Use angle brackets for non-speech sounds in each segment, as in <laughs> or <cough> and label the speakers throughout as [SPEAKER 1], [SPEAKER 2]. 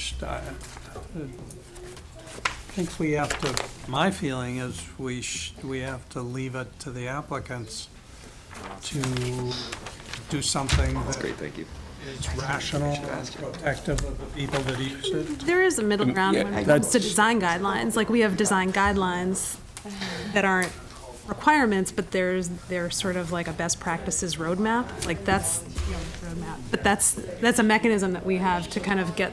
[SPEAKER 1] just, I, I think we have to, my feeling is we sh, we have to leave it to the applicants to do something that
[SPEAKER 2] Great, thank you.
[SPEAKER 1] is rational and protective of the people that use it.
[SPEAKER 3] There is a middle ground
[SPEAKER 2] yeah,
[SPEAKER 3] when
[SPEAKER 2] I-
[SPEAKER 3] it comes to design guidelines. Like, we have design guidelines that aren't requirements, but there's, they're sort of like a best practices roadmap. Like, that's, you know, roadmap. But that's, that's a mechanism that we have to kind of get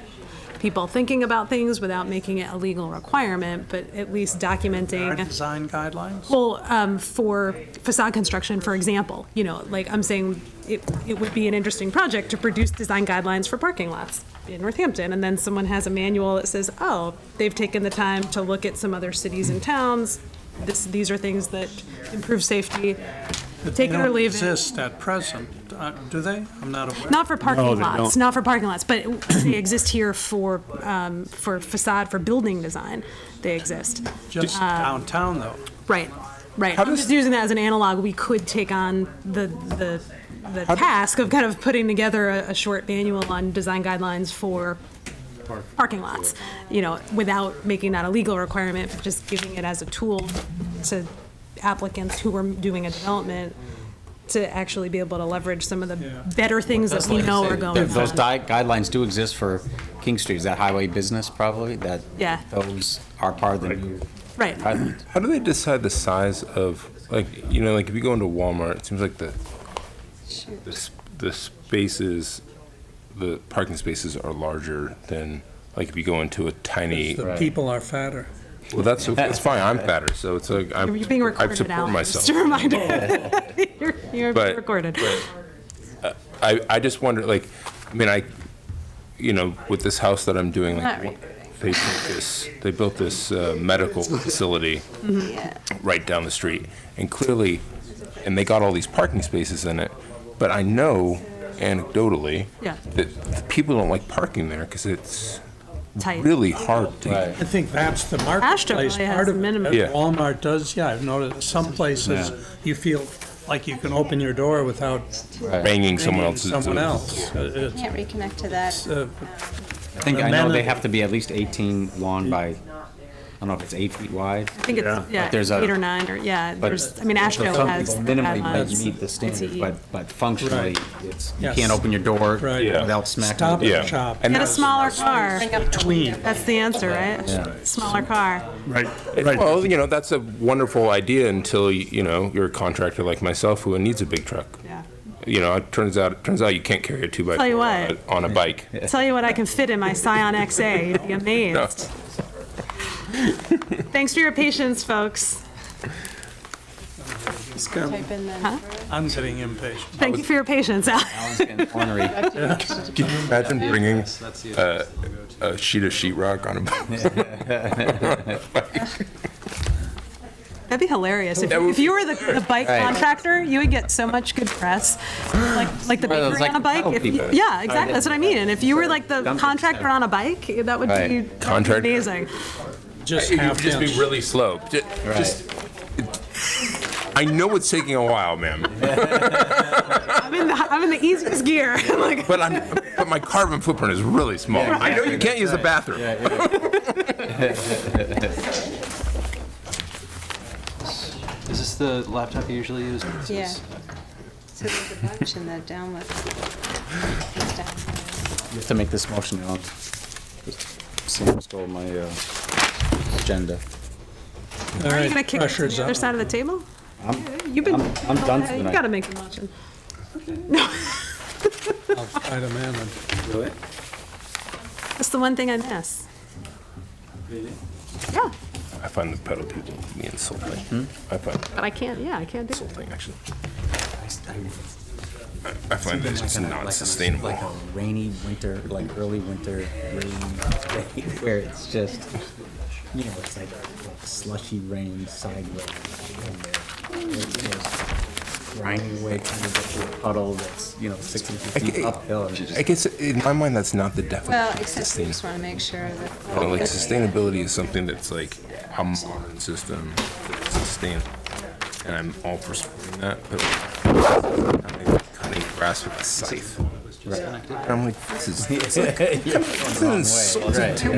[SPEAKER 3] people thinking about things without making it a legal requirement, but at least
[SPEAKER 1] Our
[SPEAKER 3] documenting.
[SPEAKER 1] design guidelines?
[SPEAKER 3] Well, um, for facade construction, for example, you know, like I'm saying, it, it would be an interesting project to produce design guidelines for parking lots in Northampton, and then someone has a manual that says, oh, they've taken the time to look at some other cities and towns. This, these are things that improve safety,
[SPEAKER 1] But
[SPEAKER 3] take it or leave it.
[SPEAKER 1] They don't exist at present, uh, do they? I'm not aware.
[SPEAKER 3] not for
[SPEAKER 4] No,
[SPEAKER 3] parking
[SPEAKER 4] they
[SPEAKER 3] lots,
[SPEAKER 4] don't.
[SPEAKER 3] not for parking lots, but they exist here for, um, for facade, for building design, they exist.
[SPEAKER 1] Just
[SPEAKER 3] uh,
[SPEAKER 1] downtown, though.
[SPEAKER 3] Right, right. I'm just using that as an analog. We could take on the, the, the task of kind of putting together a, a short manual on design guidelines for parking lots, you know, without making that a legal requirement, but just giving it as a tool to applicants who are doing a development to actually be able to leverage some of the better things that we know are going
[SPEAKER 5] Those
[SPEAKER 3] on.
[SPEAKER 5] di- guidelines do exist for King Street, is that highway business probably, that?
[SPEAKER 3] Yeah.
[SPEAKER 5] Those are part of the new
[SPEAKER 3] Right.
[SPEAKER 5] guidelines.
[SPEAKER 6] How do they decide the size of like you know like if you go into Walmart, it seems like the the, s- the spaces, the parking spaces are larger than like if you go into a tiny.
[SPEAKER 1] The people are fatter.
[SPEAKER 6] Well, that's that's fine. I'm fatter, so it's like I'm,
[SPEAKER 3] You're being
[SPEAKER 6] I
[SPEAKER 3] recorded,
[SPEAKER 6] support
[SPEAKER 3] Alan, <laughs> just a
[SPEAKER 6] myself.
[SPEAKER 3] reminder. You're, you're being
[SPEAKER 6] But-
[SPEAKER 3] recorded.
[SPEAKER 6] I I just wonder like, I mean I, you know, with this house that I'm doing,
[SPEAKER 3] Not
[SPEAKER 6] like
[SPEAKER 3] right.
[SPEAKER 6] they built this they built this uh, medical
[SPEAKER 3] Mm-hmm.
[SPEAKER 6] facility right down the street, and clearly, and they got all these parking spaces in it, but I know anecdotally
[SPEAKER 3] Yeah.
[SPEAKER 6] that the people don't like parking there because it's
[SPEAKER 3] Tight.
[SPEAKER 6] really hard to.
[SPEAKER 5] Right.
[SPEAKER 1] I think that's the
[SPEAKER 3] probably
[SPEAKER 1] marketplace
[SPEAKER 3] has
[SPEAKER 1] part of it.
[SPEAKER 3] minimum.
[SPEAKER 6] Yeah.
[SPEAKER 1] Walmart does, yeah, I've noticed, some places, you feel like you can open your door without
[SPEAKER 6] Banging someone
[SPEAKER 1] banging
[SPEAKER 6] else's.
[SPEAKER 1] someone else. Uh,
[SPEAKER 7] Can't reconnect to that.
[SPEAKER 1] it's, uh,
[SPEAKER 5] I think, I know they have to be at least 18 long by, I don't know if it's eight feet wide,
[SPEAKER 3] I think it's, yeah,
[SPEAKER 5] there's a-
[SPEAKER 3] eight or nine, or, yeah,
[SPEAKER 5] but.
[SPEAKER 3] there's, I mean, Asheville
[SPEAKER 5] Some
[SPEAKER 3] has. uh,
[SPEAKER 5] people Minimally might
[SPEAKER 3] guidelines. E
[SPEAKER 5] meet the standard,
[SPEAKER 3] ICE.
[SPEAKER 5] but, but functionally,
[SPEAKER 1] Right.
[SPEAKER 5] it's, you
[SPEAKER 1] Yes.
[SPEAKER 5] can't open your door
[SPEAKER 1] Right. Yeah.
[SPEAKER 5] without smacking.
[SPEAKER 1] Stop
[SPEAKER 5] the
[SPEAKER 1] and
[SPEAKER 6] Yeah.
[SPEAKER 1] shop.
[SPEAKER 3] Get a smaller car,
[SPEAKER 7] Bring up the window.
[SPEAKER 3] that's the answer,
[SPEAKER 5] Yeah.
[SPEAKER 3] right? Smaller car.
[SPEAKER 4] Right, right.
[SPEAKER 6] Well, you know, that's a wonderful idea until, y- you know, you're a contractor like myself who needs a big truck.
[SPEAKER 3] Yeah.
[SPEAKER 6] You know, it turns out, it turns out you can't carry a two by
[SPEAKER 3] Tell you
[SPEAKER 6] four
[SPEAKER 3] what.
[SPEAKER 6] on a- on a bike.
[SPEAKER 3] Tell you what I can fit in my Scion XA, you'd be amazed. Thanks for your patience, folks.
[SPEAKER 1] It's kind of-
[SPEAKER 7] Type in the
[SPEAKER 1] I'm getting impatient.
[SPEAKER 3] Thank you for your patience.
[SPEAKER 5] Alan's getting
[SPEAKER 3] <laughs>
[SPEAKER 5] ornery.
[SPEAKER 6] Can you imagine bringing a, a sheet of sheetrock on a bike?
[SPEAKER 3] That'd be hilarious. If,
[SPEAKER 6] That would
[SPEAKER 3] if you were the, the bike
[SPEAKER 5] Right.
[SPEAKER 3] contractor, you would get so much good press, like, like the
[SPEAKER 5] Well, it's
[SPEAKER 3] bakery
[SPEAKER 5] like
[SPEAKER 3] on a bike.
[SPEAKER 5] metal
[SPEAKER 3] If you-
[SPEAKER 5] people.
[SPEAKER 3] Yeah, exactly, that's what I mean. And if you were like the contractor on a bike, that would
[SPEAKER 5] Right.
[SPEAKER 3] be that'd be
[SPEAKER 6] Contractor.
[SPEAKER 3] amazing.
[SPEAKER 6] <laughs>
[SPEAKER 1] Just
[SPEAKER 6] It would
[SPEAKER 1] half
[SPEAKER 6] just be
[SPEAKER 1] inch.
[SPEAKER 6] really slow. Ju- Just, I know it's taking a while, ma'am,
[SPEAKER 3] I'm in the, I'm in the easiest gear. <laughs> I'm like,
[SPEAKER 6] but I'm, but my carbon footprint is really small. I know you can't use the bathroom.
[SPEAKER 8] Is this the laptop you usually use? This
[SPEAKER 7] Yeah.
[SPEAKER 8] is-
[SPEAKER 7] So there's a bunch in the download. It's down.
[SPEAKER 5] You have to make this motion, Alan. Sam stole my uh, agenda.
[SPEAKER 1] All
[SPEAKER 3] are
[SPEAKER 1] right,
[SPEAKER 3] you gonna kick it to
[SPEAKER 1] pressure's
[SPEAKER 3] the other
[SPEAKER 1] up.
[SPEAKER 3] side of the table? You've been.
[SPEAKER 5] I'm- I'm done for
[SPEAKER 3] You
[SPEAKER 5] tonight.
[SPEAKER 3] gotta make a motion.
[SPEAKER 1] I'll fight a man and-
[SPEAKER 3] That's the one thing I miss. Yeah,
[SPEAKER 6] I find the pedal people to be
[SPEAKER 1] Hmm?
[SPEAKER 6] insulting. I find it
[SPEAKER 3] but I can't, yeah, I can't do it.
[SPEAKER 6] insulting, actually. I find that it's not sustainable.
[SPEAKER 5] Like a rainy winter, like early winter rain, day <laughs> where it's just, you know, it's like slushy rain sideways. and It's just grinding away kind of like a puddle that's, you know, 60 feet uphill. and
[SPEAKER 6] I guess in my mind, that's not the
[SPEAKER 7] Well,
[SPEAKER 6] definition of
[SPEAKER 7] except we
[SPEAKER 6] sustainability.
[SPEAKER 7] just want to make sure that.
[SPEAKER 6] You know, like sustainability is something that's like how modern system sustain, and I'm all for supporting that. But cutting grass with a scythe.
[SPEAKER 5] Right.
[SPEAKER 8] disconnected?
[SPEAKER 6] I'm like, this is, this is
[SPEAKER 5] Yeah,
[SPEAKER 6] insulting to